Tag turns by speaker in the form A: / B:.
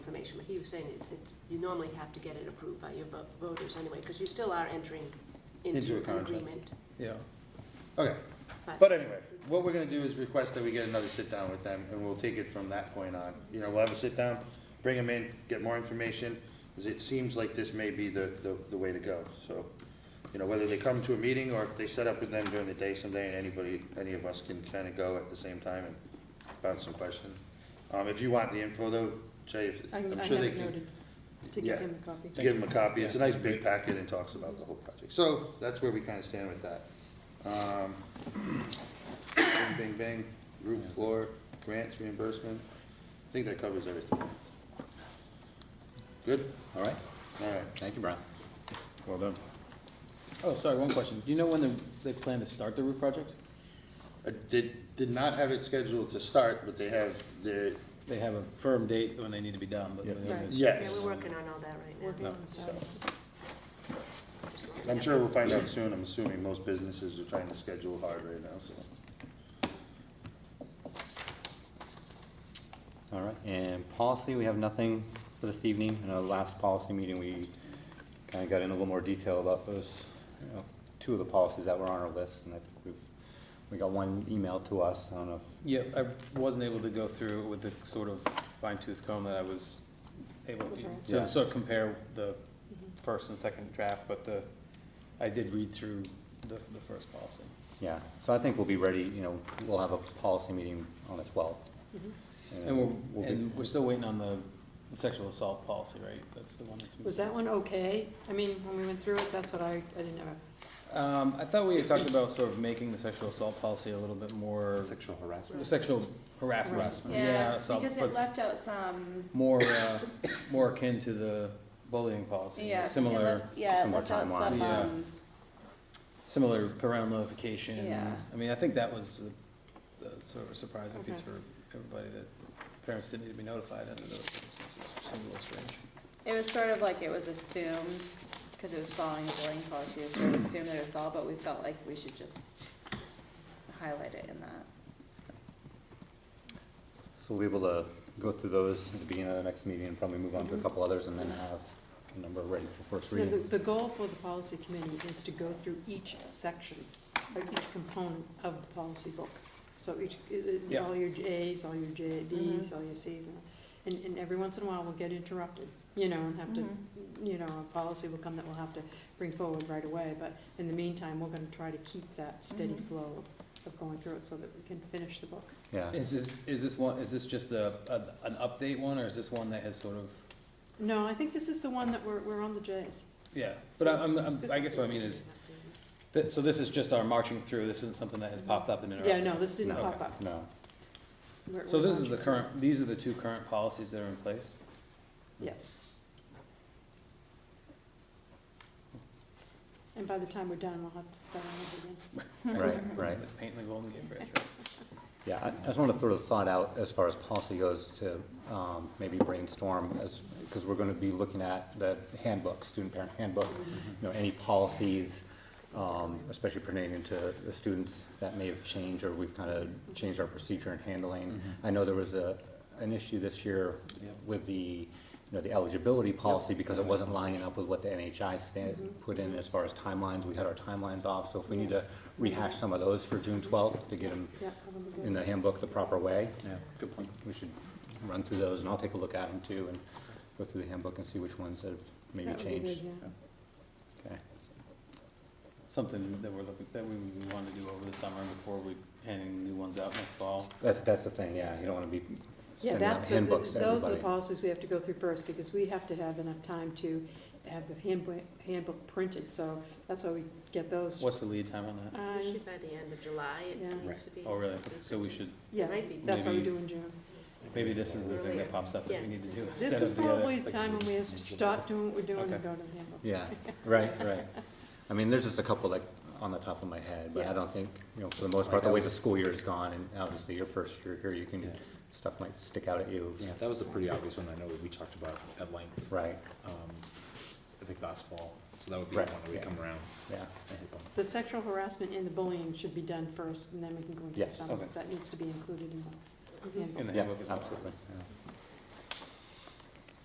A: conversation, but he was saying it's, it's, you normally have to get it approved by your vo- voters anyway, because you still are entering
B: Into a
A: into an
B: contract.
A: agreement.
B: Yeah. Okay, but anyway, what we're gonna do is request that we get another sit-down with them, and we'll take it from that point on. You know, we'll have a sit-down, bring them in, get more information, because it seems like this may be the, the, the way to go, so. You know, whether they come to a meeting, or if they set up with them during the day someday, and anybody, any of us can kinda go at the same time and bounce some questions. Um, if you want the info though, Jay, if-
C: I
B: I'm
C: I have
B: sure they
C: it
B: can.
C: noted to
B: Yeah.
C: give him a copy.
B: Give them a copy, it's a nice big packet and talks about the whole project, so that's where we kinda stand with that. Um, Bing, bing, bing, roof, floor, grants, reimbursement, I think that covers everything. Good,
D: All right,
B: alright,
D: thank you, Brian.
B: well done.
E: Oh, sorry, one question. Do you know when they, they plan to start the roof project?
B: I did, did not have it scheduled to start, but they have their,
E: They have a firm date when they need to be done, but.
B: Yeah.
E: they haven't-
B: yes.
A: Yeah, we're working on all that right
C: Working
A: now.
C: on the side.
B: I'm sure we'll find out soon, I'm assuming most businesses are trying to schedule hard right now, so.
D: All right, and policy, we have nothing for this evening. In our last policy meeting, we kind of got in a little more detail about those, you know, two of the policies that were on our list, and I think we've, we got one email to us, I don't know if
E: Yeah, I wasn't able to go through it with the sort of fine tooth comb that I was able
C: That's
E: to,
C: all right. Mm-hmm.
D: Yeah.
E: to sort of compare the first and second draft, but the, I did read through the, the first policy.
D: Yeah, so I think we'll be ready, you know, we'll have a policy meeting on the twelfth.
F: Mm-hmm.
E: And
D: we'll
E: we're,
D: be-
E: and we're still waiting on the sexual assault policy, right? That's the one that's. been-
C: Was that one okay? I mean, when we went through it, that's what I, I didn't have a
E: Um, I thought we had talked about sort of making the sexual assault policy a little bit more,
B: Sexual harassment.
E: sexual harassment,
C: Harassment.
F: Yeah,
E: assault,
F: because
E: but-
F: it left out some,
E: more, uh, more akin to the bullying policy,
F: yeah. it
E: similar,
F: left- Yeah, it
D: similar
F: left out
D: timeline.
F: some,
E: Yeah.
F: um,
E: similar parental notification.
F: Yeah.
E: I mean, I think that was uh, uh, sort of a surprising piece
C: Okay.
E: for everybody, that parents didn't need to be notified under those circumstances, which seemed a little strange.
F: it was sort of like it was assumed, because it was following the bullying policy, it was sort of assumed that it would follow, but we felt like we should just highlight it in that.
D: So we'll be able to go through those at the beginning of the next meeting and probably move on to a couple others and then have a number ready for first
C: no, the,
D: reading.
C: the goal for the policy committee is to go through each section, or each component of the policy book. So each, i- i-
E: Yeah.
C: all your Js, all your JBs,
D: Mm-hmm.
B: Mm-hmm.
F: Mhm.
C: all your Cs, and, and, and every once in a while, we'll get interrupted, you know, and have to,
A: Mm-hmm.
C: you know, a policy will come that we'll have to bring forward right away, but in the meantime, we're gonna try to keep that steady
A: Mm-hmm.
F: Mhm.
C: flow of going through it so that we can finish the book.
D: Yeah,
E: Is this, is this one, is this just a, a- an update one, or is this one that has sort of,
C: No, I think this is the one that we're, we're on the Js.
E: yeah, but I- I'm, I'm, I guess what I mean is, th- so this is just our marching through, this isn't something that has popped up and interrupted
C: Yeah, no,
E: us?
C: this didn't
D: No.
C: pop up.
D: no,
C: We're-
E: So
C: we're
E: this is
C: on
E: the current, these are the two current policies that are in place?
C: Yes. And by the time we're done, we'll have to start on it again.
D: right, right.
E: Painting the Golden Gate Bridge,
D: Yeah, I I just want to throw the thought out as far as policy goes to um, maybe brainstorm as, because we're going to be looking at the handbook, student parent handbook,
E: Mm-hmm.
D: you know, any policies, um, especially pertaining to the students that may have changed or we've kind of changed our procedure in handling.
C: Mm-hmm.
D: I know there was a, an issue this year
E: Yep.
D: with the, you know, the eligibility policy because it wasn't
C: Mm-hmm.
D: lining up with what the NHI stand, put in as far as timelines. We had our timelines off, so if we need to
C: Yes.
D: rehash some of those for June twelfth to get them
C: Yeah, that'll be good.
D: in the handbook the proper way.
E: Yeah, good point.
D: We should run through those, and I'll take a look at them too, and go through the handbook and see which ones have maybe
C: That would be good,
D: changed.
C: yeah.
D: Okay.
E: Something that we're looking, that we want to do over the summer before we handing new ones out next fall.
D: That's, that's the thing, yeah, you don't wanna be
C: Yeah,
D: sending out
C: that's, the-
D: handbooks
C: the-
D: to
C: those are the
D: everybody.
C: policies we have to go through first, because we have to have enough time to have the handbook, handbook printed, so that's why we get those.
E: What's the lead time on that?
C: Um,
A: Usually by the end of July,
C: Yeah.
A: it needs to be.
E: Oh, really? So we should,
C: Yeah,
A: Might be.
C: that's why we
E: Maybe-
C: do in June.
E: maybe this is the thing that pops up that we need to do
C: This
E: instead
C: is
E: of the other.
C: probably the time when we have to stop doing what we're doing and
E: Okay.
C: go to the handbook.
D: Yeah, right, right. I mean, there's just a couple like on the top of my head, but I
C: Yeah.
D: don't think, you know, for the most part, the way the school year is gone, and obviously your first year here, you can,
G: Yeah.
D: stuff might stick out at you,
G: Yeah, that was a pretty obvious one, I know we talked about at length,
D: right,
G: um, I think last fall, so that would be
D: Right,
G: one that we
D: yeah.
G: come around
D: yeah.
G: and hit on.
C: The sexual harassment and the bullying should be done first, and then we can go into the
D: Yes.
C: summer,
E: Okay.
C: because that needs to be included in the handbook.
E: In the
D: Yeah,
E: handbook as well.
D: absolutely. yeah.